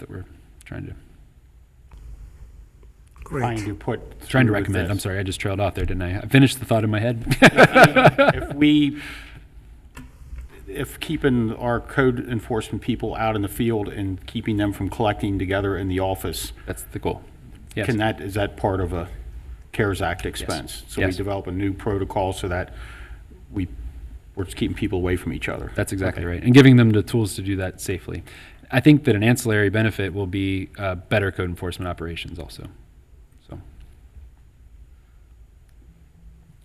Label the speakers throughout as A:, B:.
A: that we're trying to,
B: trying
C: Great.
B: to put.
A: trying to
B: through with
A: recommend. I'm
B: this.
A: sorry, I just trailed off there, didn't I? I finished the thought in my head.
B: If we, if keeping our code enforcement people out in the field and keeping them from collecting together in the office,
A: That's the goal. Yes.
B: can that, is that part of a CARES Act expense? So we
A: Yes.
B: develop a new protocol so that we, we're just keeping people away from each other?
A: That's exactly
B: Okay.
A: right. And giving them the tools to do that safely. I think that an ancillary benefit will be uh, better code enforcement operations also. So,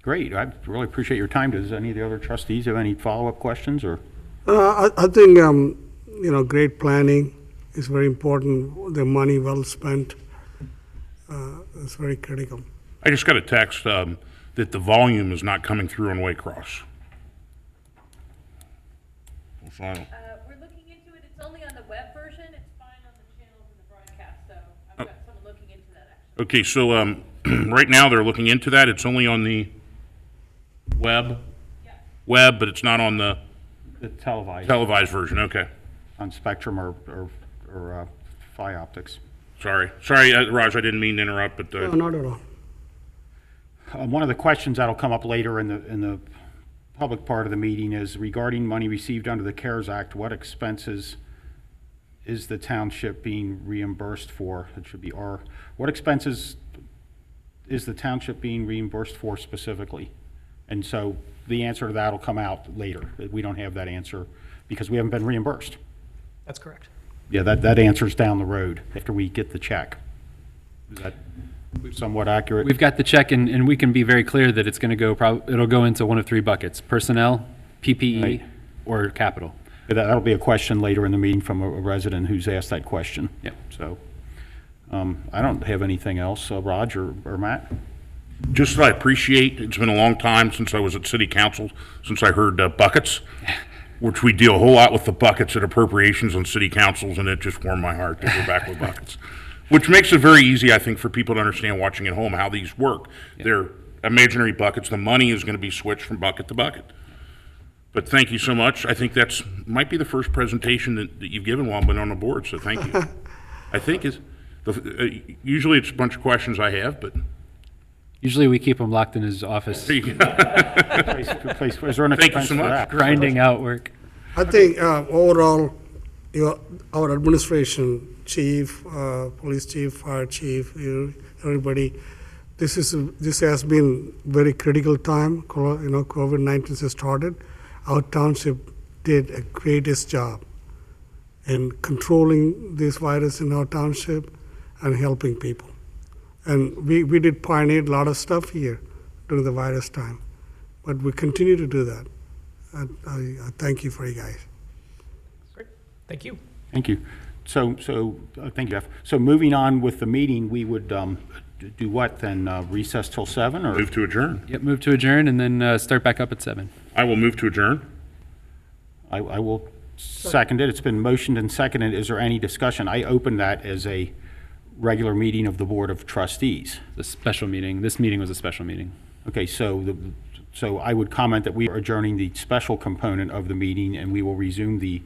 B: Great, I really appreciate your time. Does any of the other trustees have any follow-up questions, or?
C: Uh, I, I think, um, you know, great planning is very important, the money well spent uh, is very critical.
D: I just got a text um, that the volume is not coming through on Waycross. So I don't-
E: Uh, we're looking into it, it's only on the web version, it's fine on the channels and the broadcast, so I've got someone looking into that actually.
D: Okay, so um, right now they're looking into that. It's only on the web, web, but it's not on the
B: The televised,
D: televised version. Okay,
B: on Spectrum or, or, or uh, Fi Optics?
D: sorry, sorry, uh, Raj, I didn't mean to interrupt, but
C: No,
D: uh,
C: not at all.
B: Um, One of the questions that'll come up later in the, in the public part of the meeting is regarding money received under the CARES Act, what expenses is the township being reimbursed for? It should be R. What expenses is the township being reimbursed for specifically? And so the answer to that will come out later. We don't have that answer because we haven't been reimbursed.
F: That's correct.
B: Yeah, that, that answer's down the road after we get the check. Is that somewhat accurate?
A: we've got the check, and, and we can be very clear that it's going to go, prob- it'll go into one of three buckets personnel,
B: Right.
A: PPE, or capital.
B: That- That'll be a question later in the meeting from a a resident who's asked that question.
A: Yeah.
B: So, um, I don't have anything else, Uh, Raj or or Matt?
D: just that I appreciate. It's been a long time since I was at city council since I heard uh, buckets, which we deal a whole lot with the buckets at appropriations on city councils, and it just warmed my heart that we're back with buckets, which makes it very easy, I think, for people to understand watching at home how these work. They're imaginary buckets. The money is going to be switched from bucket to bucket. But thank you so much. I think that's might be the first presentation that, that you've given while I've been on the board. So thank you. I think is the, uh, usually it's a bunch of questions I have, but.
A: Usually we keep them locked in his office,
B: Please, please, Is there an
D: Thank you
B: expense
D: so
B: for
D: much.
B: that?
A: grinding out work.
C: I think uh, overall, your, our administration, chief, uh, police chief, fire chief, you- everybody, this is this has been very critical time. co- You know, COVID nineteen has started. Our township did a greatest job in controlling this virus in our township and helping people. And we, we did pioneer a lot of stuff here during the virus time, but we continue to do that. And I, I thank you for you guys.
F: Great. Thank you.
B: Thank you. So, so, uh, thank you, Jeff. So moving on with the meeting, we would um, d- do what then? Uh, Recess till seven or?
D: Move to adjourn.
A: Yep, move to adjourn and then uh, start back up at seven.
D: I will move to adjourn.
B: I, I will second it. It's been motioned and seconded. Is there any discussion? I opened that as a regular meeting of the Board of Trustees.
A: The special meeting, this meeting was a special meeting.
B: Okay, so, the- so I would comment that we are adjourning the special component of the meeting, and we will resume the,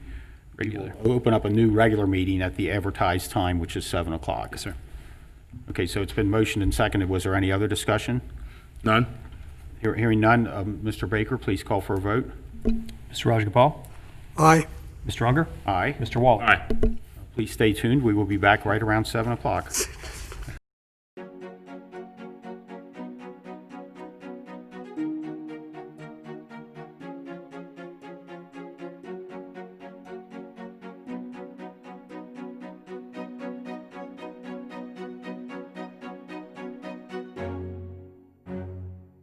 B: we will open up a new regular meeting at the advertised time, which is 7 o'clock.
A: Yes, sir.
B: Okay, so it's been motioned and seconded. Was there any other discussion?
D: None?
B: Hear- Hearing none, um, Mr. Baker, please call for a vote.
G: Mr. Rajagopal,
C: Aye.
G: Mr. Unger,
B: Aye.
G: Mr. Waller.
D: Aye.
B: Please stay tuned. We will be back right around 7 o'clock.